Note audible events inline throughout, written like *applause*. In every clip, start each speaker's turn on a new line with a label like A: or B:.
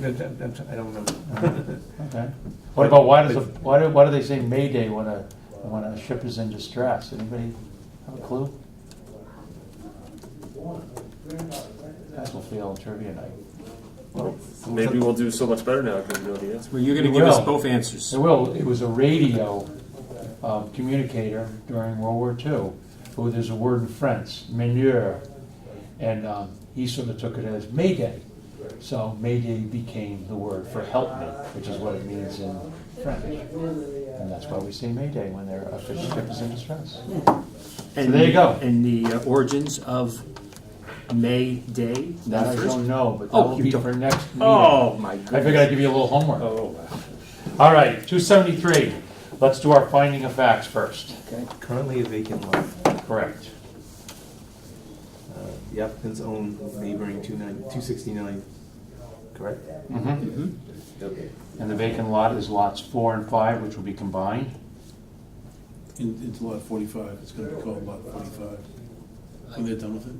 A: that- that- that's, I don't know.
B: Okay. What about, why does, the- why do, why do they say Mayday when a, when a ship is in distress? Anybody have a clue? Guys will fail trivia night.
C: Maybe we'll do so much better now because we know the answer.
D: Well, you're going
B: You
D: to give us
B: will.
D: both answers.
B: It will, it was a radio um, communicator during World War II, who, there's a word in French, meneur, and um, he sort of took it as Mayday. So Mayday became the word for help me, which is what it means in French. And that's why we say Mayday when their official ship is in distress.
D: Hmm. And
B: there you go.
D: And the uh, origins of May Day.
B: That I don't know, but that
D: Oh,
B: will
D: you
B: be
D: don't-
B: for next meeting.
D: Oh my
B: I figured
D: goodness!
B: I'd give you a little homework.
C: Oh, wow.
B: All right, two seventy-three. Let's do our finding of facts first.
A: Currently a vacant lot.
B: Correct.
A: Uh, The applicants own neighboring 29 269, correct?
B: Mm-hmm.
A: Okay.
B: And the vacant lot is lots four and five, which will be combined.
E: In, into lot forty-five, it's gonna be called lot forty-five. When they're done with it,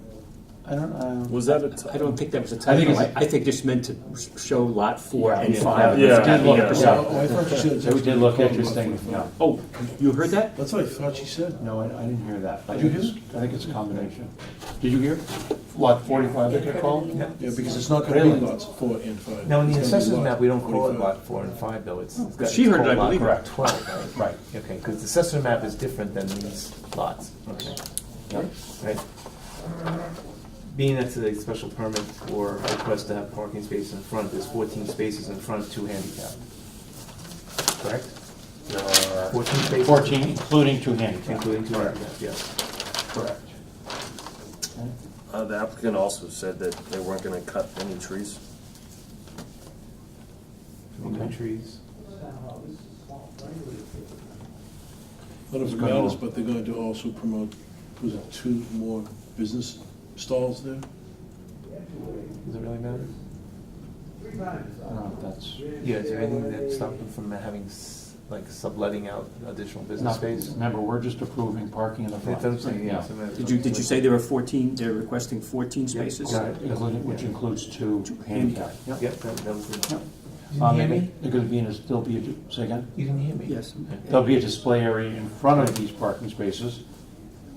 B: I don't, uh,
C: Was that a t-
D: I don't think that was a
B: I think
D: typo. I
B: it's-
D: I think just meant to s- show lot four and
B: yeah,
D: five.
B: yeah,
D: as
C: yeah,
D: being
B: yeah.
D: represented.
E: Oh, I thought you said it's
B: it did
E: gonna
B: look
E: be called lot
B: interesting,
E: 45.
B: yeah.
D: Oh, you heard that?
E: That's what I thought she said.
B: No, I, I didn't hear that. I
E: Did you
B: think
E: hear
B: it's- I think it's a combination. Did you hear? Lot forty-five, they could call?
E: Yeah, because it's not gonna be
B: Really?
E: lots four and five.
A: Now, in the
E: It's gonna be
A: assessors
E: lot
A: map, we don't call it
E: 45.
A: lot four and five, though, it's. it's got-
D: She
A: it's
D: heard it,
A: called
D: I
A: lot
D: believe.
B: Correct.
A: Twelve, right?
B: Right.
A: Okay, because the assessor map is different than these lots, okay,
B: Yep.
A: right? Being that's a special permit for a request to have parking space in front, there's fourteen spaces in front, two handicap. Correct?
B: There are
A: Fourteen spaces.
B: Fourteen, including two handicapped.
A: Including two handicap, yes.
B: Correct.
C: uh, the applicant also said that they weren't going to cut any trees.
A: No trees.
E: But it matters, but they're going to also promote, was it two more business stalls there?
A: Does it really matter?
B: I don't know if that's,
A: Yeah, is there anything that stopped them from having, s- like, subletting out additional business
B: not,
A: space?
B: remember, we're just approving parking in the front.
A: That's what I'm saying, yeah.
B: Yeah.
A: so maybe-
D: Did you, did you say there were 14, they're requesting 14
A: Yeah.
D: spaces?
A: Yeah.
B: Right, including, which includes two handicapped. Yep.
A: Yep, that, that was
B: Yep.
A: the.
B: Um, They're gonna be in, a- there'll be, a say again?
A: You didn't hear me?
D: Yes.
B: There'll be a display area in front of these parking spaces,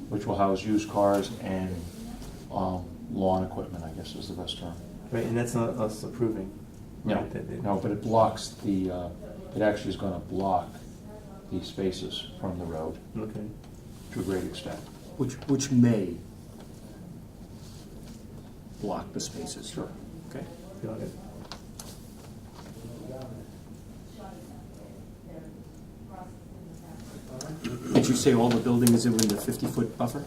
B: which will house used cars and um, lawn equipment, I guess is the best term.
A: Right, and that's not us approving.
B: No,
A: right, that- that-
B: no, but it blocks the, uh, it actually is going to block these spaces from the road
A: Okay.
B: to a great extent.
D: Which, which may block the spaces. Sure. Okay.
A: Got it.
D: Did you say all the buildings are in the 50-foot buffer?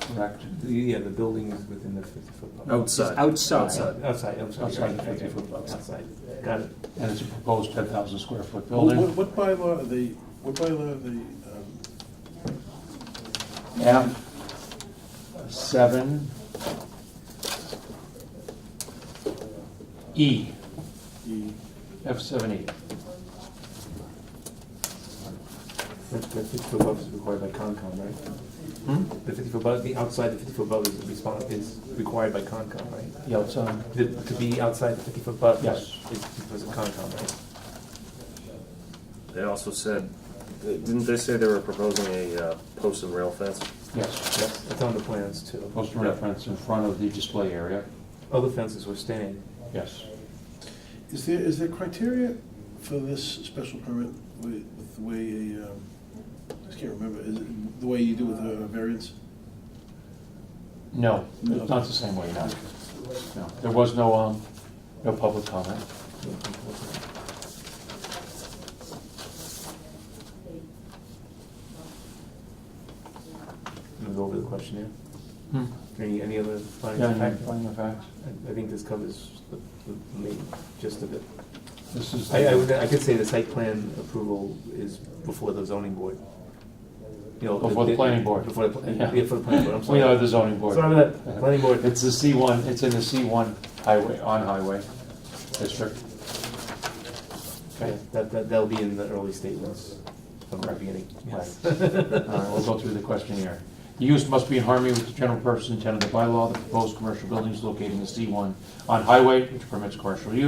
B: Correct.
A: The- Yeah, the building is within the fifty foot buffer.
C: Outside.
D: Outside.
A: Outside, outside, I'm sorry.
B: Outside the
A: okay,
B: 50 foot buffer.
A: Outside, got it.
B: And it's a proposed 10,000 square foot
E: What,
B: building.
E: what bylaw are they, what bylaw are they, um,
B: F seven E,
E: the,
B: F seven E.
A: The fifty foot buffer is required by Concom, right? The fifty foot buffer, the outside the fifty foot buffer is respon is required by Concom, right?
B: Yeah, it's, um,
A: The- To be outside the fifty foot buffer.
B: Yes.
A: Is because of Concom, right?
C: They also said, didn't they say they were proposing a uh, post and rail fence?
B: yes.
A: Yes, that's on the plans too.
B: Post reference in front of the display area,
A: Other fences were staying.
B: yes.
E: is there, is there criteria for this special permit with, with the way a, um, I just can't remember, is it the way you do with a variance?
B: No, it's not the same way, no. No, there was no, um, no public comment.
A: I'm gonna go over the questionnaire.
B: Yeah,
A: Any, any other findings of
B: and
A: fact?
B: finding of facts.
A: I- I think this covers the, the main gist of it.
B: This is,
A: I, I would,
B: the-
A: I could say the site plan approval is before the zoning board. You know,
B: Before the planning board.
A: Before the, pla-
B: Yeah.
A: yeah, for the planning board, I'm sorry.
B: *laughs* we are the zoning board.
A: Sorry about that, planning board.
B: It's the C one, it's in the C one highway, on highway district.
A: Yeah, That, that, that'll be in the early statements from the beginning. *laughs*
B: Yes. All right, we'll Uh, go through the questionnaire. The use must be in harmony with the general purpose and intent of the bylaw. The proposed commercial building is located in the C1 on highway, which permits commercial use.